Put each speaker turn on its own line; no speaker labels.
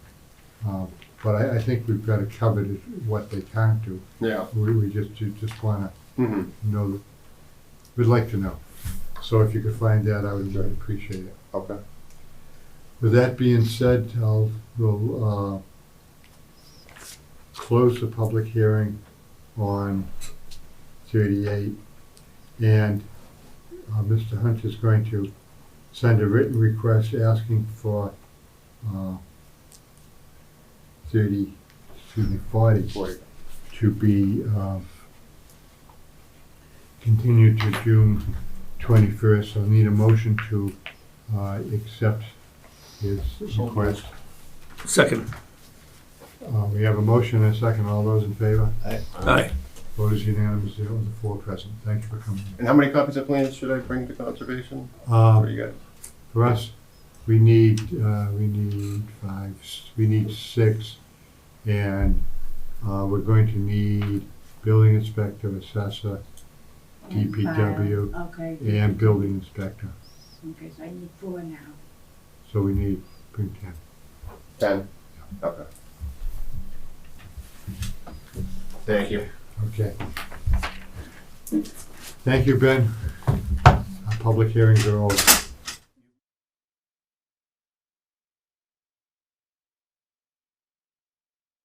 Uh, But I, I think we've got it covered, is what they can't do.
Yeah.
We, we just, you just wanna
Mm-hmm.
know, that- we'd like to know. So if you could find that, I would really appreciate it.
Okay.
With that being said, I'll, we'll, uh, close the public hearing on thirty-eight. And, uh, Mr. Hunt is going to send a written request asking for, uh, thirty, excuse me, forty
Forty.
to be, um, continued to June twenty-first. I'll need a motion to, uh, accept his request.
Second.
Uh, we have a motion and a second. All those in favor?
Aye.
Vote is unanimous, there was a four present. Thank you for coming.
And how many copies of plans should I bring to conservation? What
Uh,
do you got?
for us, we need, uh, we need five, s- we need six. And, uh, we're going to need building inspector, assessor,
And
DPW.
fire. Okay,
and building inspector.
okay, so I need four now.
So we need, bring ten.
Ten. Okay. Thank you.
Okay. Thank you, Ben. Our public hearings are over.